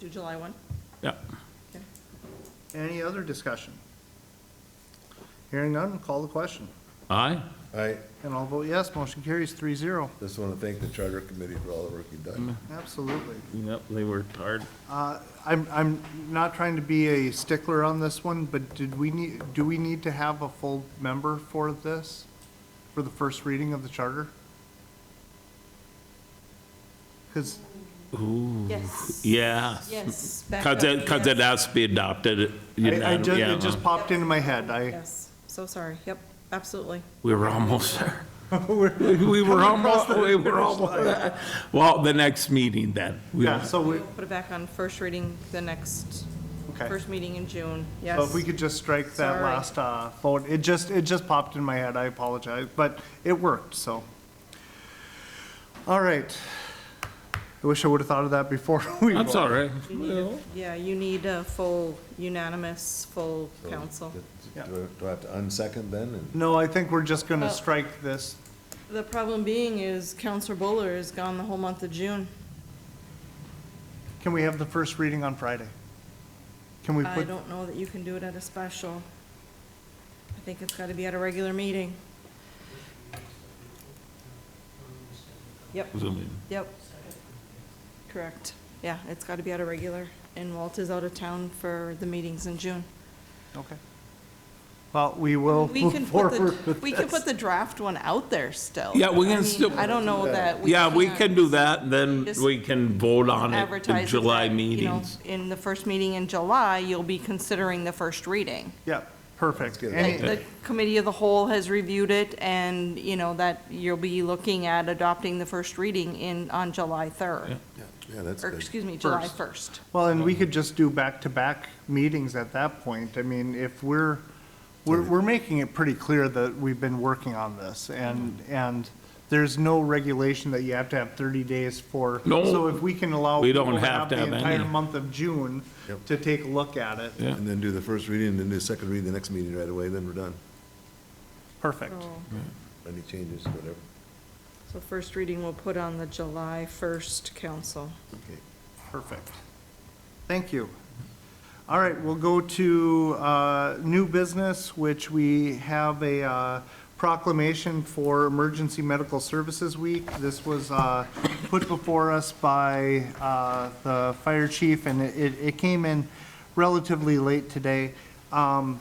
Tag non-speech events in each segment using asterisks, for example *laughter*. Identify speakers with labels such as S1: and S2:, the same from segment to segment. S1: do July 1.
S2: Yeah.
S1: Okay.
S3: Any other discussion? Hearing none, call the question.
S2: Aye?
S4: I
S3: And I'll vote yes, motion carries three zero.
S4: just want to thank the Charter Committee for all the work you've done.
S3: Mm-hmm. Absolutely.
S2: Yep, they worked hard.
S3: Uh, I'm, I'm not trying to be a stickler on this one, but did we need, do we need to have a full member for this? For the first reading of the charter? Because, Mm.
S1: Yes.
S2: Yeah.
S1: Yes.
S2: Cause it, cause it has to be adopted.
S3: I, I just,
S2: Yeah,
S3: it just popped into my head, I,
S1: Yes, so sorry, yep, absolutely.
S2: We were almost
S3: *laughs*
S2: there. We were almost, we were almost there. Well, the next meeting then. We-
S3: yeah, so we,
S1: We'll put it back on first reading the next,
S3: okay.
S1: first meeting in June,
S3: So if
S1: yes.
S3: we could just strike that
S1: Sorry.
S3: last, uh, vote, it just, it just popped in my head, I apologize, but it worked, so. All right. I wish I would have thought of that before *laughs*
S2: *laughs*
S3: we.
S2: That's all
S3: voted.
S2: right.
S1: You need a- Yeah, you need a full unanimous, full council.
S4: Do I- do I have to unsecond then? And
S3: No, I think we're just gonna
S1: Oh.
S3: strike this.
S1: The problem being is Counselor Buller is gone the whole month of June.
S3: Can we have the first reading on Friday? Can we
S1: I
S3: put,
S1: don't know that you can do it at a special. I think it's got to be at a regular meeting. Yep, yep. Correct. Yeah, it's got to be at a regular, and Walt is out of town for the meetings in June.
S3: okay. Well, we will
S1: We can
S3: move
S1: put
S3: forward
S1: the,
S3: with
S1: we can put the
S3: this.
S1: draft one out there still.
S2: Yeah, we can
S1: I mean,
S2: still-
S1: I don't know that.
S2: Yeah, we
S1: can't
S2: can do that, and then
S1: Just
S2: we can vote on it in
S1: Advertise it
S2: July
S1: that, you know,
S2: meetings. *laughs*
S1: In the first meeting in July, you'll be considering the first reading.
S3: Yeah, perfect.
S4: get it.
S3: Any-
S1: Like, the committee of the whole has reviewed it, and, you know, that you'll be looking at adopting the first reading in, on July 3rd.
S4: Yeah, that's
S1: Or,
S4: good.
S1: excuse me, July
S3: First.
S1: 1st.
S3: Well, and we could just do back-to-back meetings at that point. I mean, if we're, we're, we're making it pretty clear that we've been working on this, and, and there's no regulation that you have to have thirty days for.
S2: No.
S3: So if we can allow.
S2: We don't
S3: people
S2: have to have
S3: The entire
S2: any.
S3: month of June
S4: Yep.
S3: to take a look at it,
S2: Yeah.
S4: And then do the first reading, and then do the second reading the next meeting right away, then we're done.
S3: perfect.
S4: Any changes, whatever.
S1: So first reading we'll put on the July 1st council.
S4: Okay.
S3: Perfect. Thank you. All right, we'll go to uh, new business, which we have a uh, proclamation for Emergency Medical Services Week. This was uh, put before us by uh, the fire chief, and it- it it came in relatively late today. Um,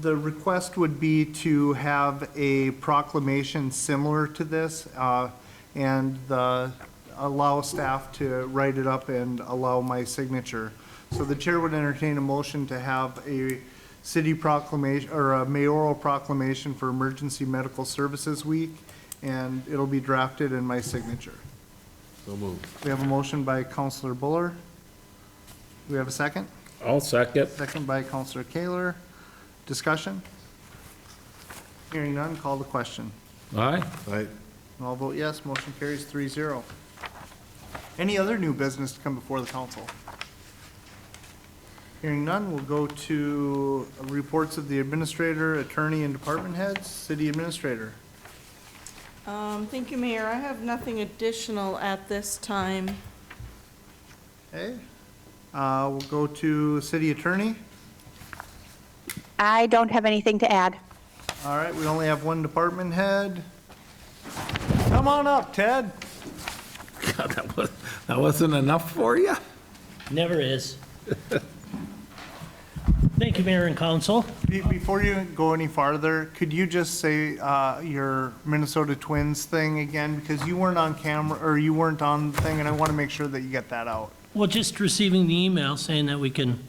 S3: the request would be to have a proclamation similar to this, uh, and the, allow staff to write it up and allow my signature. So the chair would entertain a motion to have a city proclamation, or a mayoral proclamation for Emergency Medical Services Week, and it'll be drafted in my signature.
S4: So moved.
S3: We have a motion by Counselor Buller. Do we have a second?
S2: I'll second.
S3: Second by Counselor Kaler. Discussion? Hearing none, call the question.
S2: Aye?
S4: All right,
S3: And I'll vote yes, motion carries three zero. Any other new business to come before the council? Hearing none, we'll go to reports of the administrator, attorney, and department heads. City administrator.
S1: Um, thank you, Mayor. I have nothing additional at this time.
S3: Okay? Uh, We'll go to city attorney.
S5: I don't have anything to add.
S3: All right, we only have one department head. Come on up, Ted.
S2: God, that was, that wasn't enough for you?
S6: Never is. Thank you, Mayor and Council.
S3: Be- Before you go any farther, could you just say uh, your Minnesota Twins thing again? Because you weren't on camera, or you weren't on the thing, and I want to make sure that you get that out.
S6: Well, just receiving the email saying that we can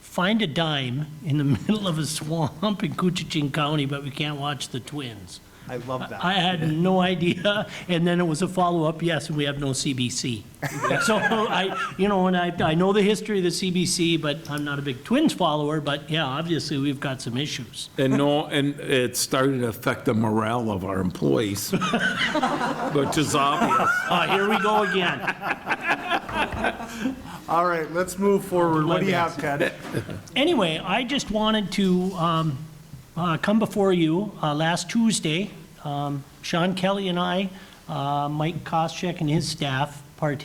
S6: find a dime in the *laughs* middle of a swamp in Coochin County, but we can't watch the Twins.
S3: I love
S6: I
S3: that.
S6: had no idea, and then it was a follow-up, yes, and we have no CBC.
S3: *laughs*
S6: So I, you know, and I, I know the history of the CBC, but I'm not a big Twins follower, but yeah, obviously, we've got some issues.
S2: And no, and it started to affect the morale of our employees, *laughs* which is obvious.
S6: Uh, here we go again.
S3: All right, let's move forward. What do you have, Ted?
S6: anyway, I just wanted to um, uh, come before you uh, last Tuesday. um, Sean Kelly and I, uh, Mike Koscheck and his staff partake